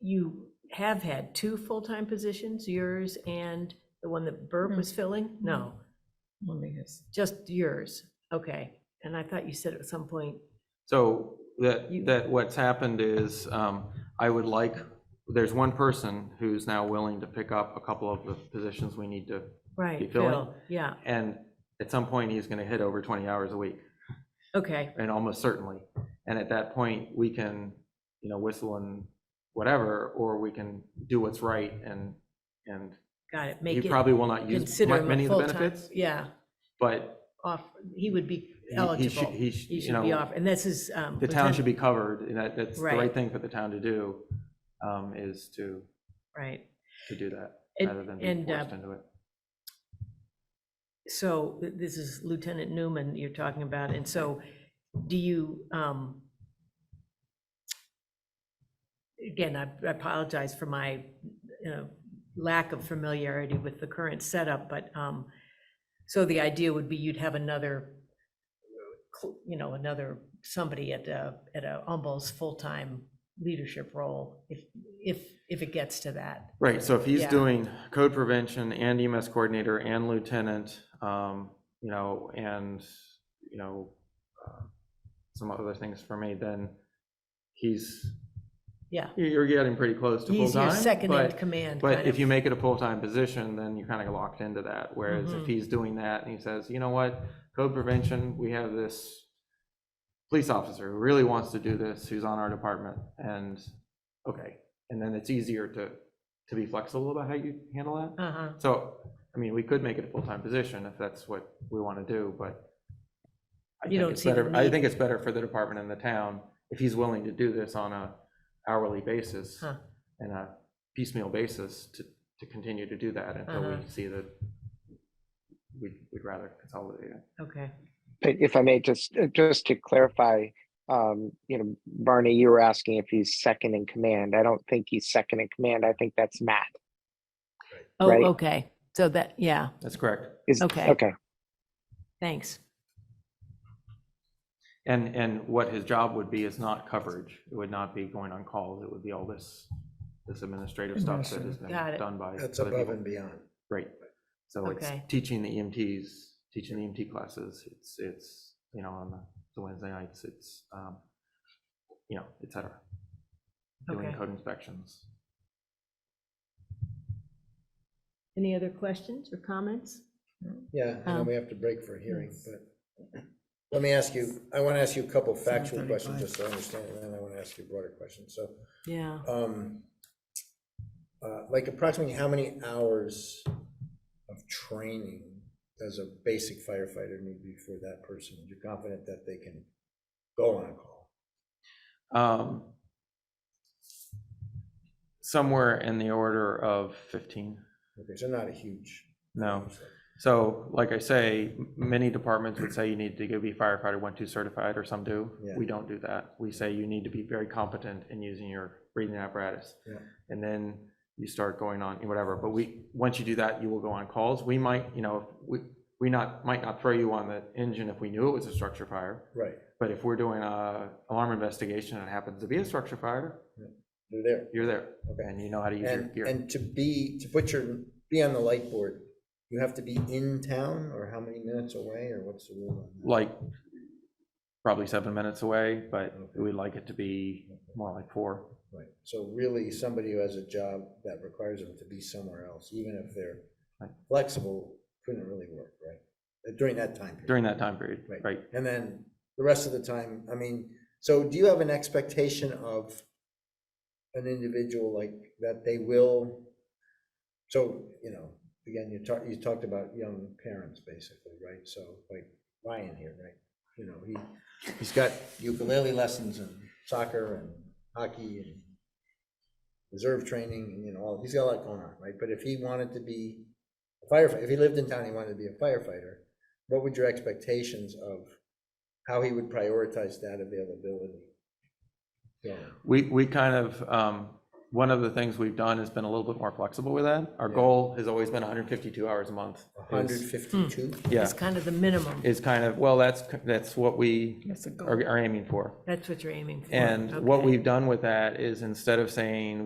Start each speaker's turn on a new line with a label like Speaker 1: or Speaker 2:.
Speaker 1: you have had two full-time positions, yours and the one that Burp was filling? No,
Speaker 2: Only his.
Speaker 1: just yours. Okay. And I thought you said at some point,
Speaker 3: So that,
Speaker 1: You-
Speaker 3: that what's happened is, um, I would like, there's one person who's now willing to pick up a couple of the positions we need to,
Speaker 1: right,
Speaker 3: filling?
Speaker 1: Phil, yeah,
Speaker 3: and at some point, he's gonna hit over twenty hours a week,
Speaker 1: okay,
Speaker 3: and almost certainly. And at that point, we can, you know, whistle and whatever, or we can do what's right and, and
Speaker 1: got it.
Speaker 3: he
Speaker 1: Make it,
Speaker 3: probably will not use
Speaker 1: consider
Speaker 3: mu-
Speaker 1: him
Speaker 3: many
Speaker 1: a
Speaker 3: of the
Speaker 1: full-time.
Speaker 3: benefits,
Speaker 1: Yeah,
Speaker 3: but
Speaker 1: off, he would be
Speaker 3: he- he should,
Speaker 1: eligible.
Speaker 3: he should,
Speaker 1: He
Speaker 3: you
Speaker 1: should be
Speaker 3: know,
Speaker 1: off, and this is. um,
Speaker 3: the town
Speaker 1: poten-
Speaker 3: should be covered, and that, that's the
Speaker 1: Right.
Speaker 3: right thing for the town to do, um, is to
Speaker 1: Right.
Speaker 3: to do that,
Speaker 1: And-
Speaker 3: rather than
Speaker 1: and,
Speaker 3: being
Speaker 1: uh,
Speaker 3: forced into it.
Speaker 1: So th- this is Lieutenant Newman you're talking about, and so do you, um, again, I I apologize for my, you know, lack of familiarity with the current setup, but, um, so the idea would be you'd have another, cl- you know, another, somebody at a, at a almost full-time leadership role, if, if, if it gets to that.
Speaker 3: Right, so if he's
Speaker 1: Yeah.
Speaker 3: doing code prevention and EMS coordinator and lieutenant, um, you know, and, you know, uh, some other things for me, then he's,
Speaker 1: Yeah.
Speaker 3: you- you're getting pretty close to
Speaker 1: He's your
Speaker 3: full-time.
Speaker 1: second in
Speaker 3: But,
Speaker 1: command.
Speaker 3: but
Speaker 1: kind
Speaker 3: if
Speaker 1: of.
Speaker 3: you make it a full-time position, then you're kind of locked into that. Whereas
Speaker 1: Mhm.
Speaker 3: if he's doing that and he says, you know what, code prevention, we have this police officer who really wants to do this, who's on our department, and, okay. And then it's easier to, to be flexible about how you handle that.
Speaker 1: Uh-huh.
Speaker 3: So, I mean, we could make it a full-time position if that's what we want to do, but I
Speaker 1: You
Speaker 3: think
Speaker 1: don't
Speaker 3: it's
Speaker 1: see the
Speaker 3: better, I
Speaker 1: need.
Speaker 3: think it's better for the department and the town if he's willing to do this on a hourly basis
Speaker 1: Huh.
Speaker 3: and a piecemeal basis to, to continue to do that until we
Speaker 1: Uh-huh.
Speaker 3: see that we'd, we'd rather consolidate it.
Speaker 1: Okay.
Speaker 4: But if I may, just, uh, just to clarify, um, you know, Barney, you were asking if he's second in command. I don't think he's second in command. I think that's Matt.
Speaker 1: Oh,
Speaker 4: right?
Speaker 1: okay. So that, yeah,
Speaker 3: That's correct.
Speaker 4: Is,
Speaker 1: Okay.
Speaker 4: okay,
Speaker 1: thanks.
Speaker 3: And, and what his job would be is not coverage. It would not be going on calls. It would be all this, this administrative stuff that is
Speaker 2: Administrative.
Speaker 1: Got it.
Speaker 3: done by.
Speaker 5: That's
Speaker 3: other
Speaker 5: above
Speaker 3: people.
Speaker 5: and beyond.
Speaker 3: Right. So it's
Speaker 1: Okay.
Speaker 3: teaching the EMTs, teaching the EMT classes. It's, it's, you know, on the- the Wednesday nights, it's, um, you know, et cetera. Doing
Speaker 1: Okay.
Speaker 3: code inspections.
Speaker 1: Any other questions or comments?
Speaker 5: Yeah, I know
Speaker 1: Um,
Speaker 5: we have to break for a hearing,
Speaker 2: yes.
Speaker 5: but let me ask you, I want to ask you a couple factual
Speaker 2: 7:35.
Speaker 5: questions, just to understand, and then I want to ask you a broader question. So,
Speaker 1: Yeah,
Speaker 5: um, uh, like approximately how many hours of training does a basic firefighter need before that person? You're confident that they can go on a call?
Speaker 3: Um, Somewhere in the order of 15.
Speaker 5: Okay, so not a huge.
Speaker 3: No. So like I say, m- many departments would say you need to go be firefighter one, two certified, or some do.
Speaker 5: Yeah.
Speaker 3: We don't do that. We say you need to be very competent in using your breathing apparatus.
Speaker 5: Yeah.
Speaker 3: And then you start going on, whatever. But we, once you do that, you will go on calls. We might, you know, we, we not, might not throw you on the engine if we knew it was a structure fire.
Speaker 5: Right,
Speaker 3: But if we're doing a alarm investigation and it happens to be a structure fire,
Speaker 5: they're there.
Speaker 3: you're there
Speaker 5: Okay.
Speaker 3: and you know how to use your
Speaker 5: And,
Speaker 3: gear.
Speaker 5: and to be, to put your, be on the light board, you have to be in town or how many minutes away or what's the rule on that?
Speaker 3: Like, probably seven minutes away, but
Speaker 5: Okay.
Speaker 3: we'd like it to be more like four.
Speaker 5: Right, so really, somebody who has a job that requires them to be somewhere else, even if they're
Speaker 3: Right.
Speaker 5: flexible, couldn't really work, right? Uh, During that time period.
Speaker 3: during that time period,
Speaker 5: Right.
Speaker 3: right?
Speaker 5: And then the rest of the time, I mean, so do you have an expectation of an individual like that they will? So, you know, again, you talked, you talked about young parents basically, right? So like Ryan here, right? You know, he, he's got ukulele lessons and soccer and hockey and reserve training and, you know, all, he's got a lot going on, right? But if he wanted to be a firefighter, if he lived in town, he wanted to be a firefighter, what would your expectations of how he would prioritize that availability? Yeah,
Speaker 3: We, we kind of, um, one of the things we've done has been a little bit more flexible with that. Our
Speaker 5: Yeah.
Speaker 3: goal has always been 152 hours a month. is-
Speaker 5: hundred fifty-two?
Speaker 3: Yeah,
Speaker 1: it's kind of the minimum.
Speaker 3: is kind of, well, that's, that's what we
Speaker 2: That's a goal.
Speaker 3: are are aiming for.
Speaker 1: That's what you're aiming for.
Speaker 3: And what
Speaker 1: okay.
Speaker 3: we've done with that is instead of saying,